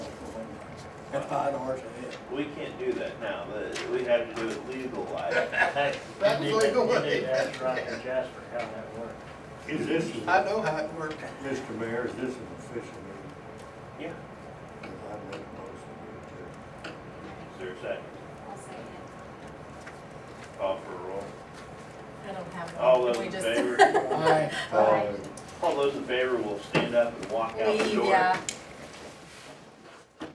five dollars a head. We can't do that now, but we have to do it legal like. Hey, That's you need- legal. You need to ask Roger Jasper how that works. Is this, I know how it worked. Mr. Mayor, is this an official meeting? Yeah. Because I made a motion Is there a second? I'll say it. Call for a roll. I don't have one. All those We in just- favor? Aye. to adjourn. Aye. Uh, All those in favor will stand up and walk out the Leave, door. yeah.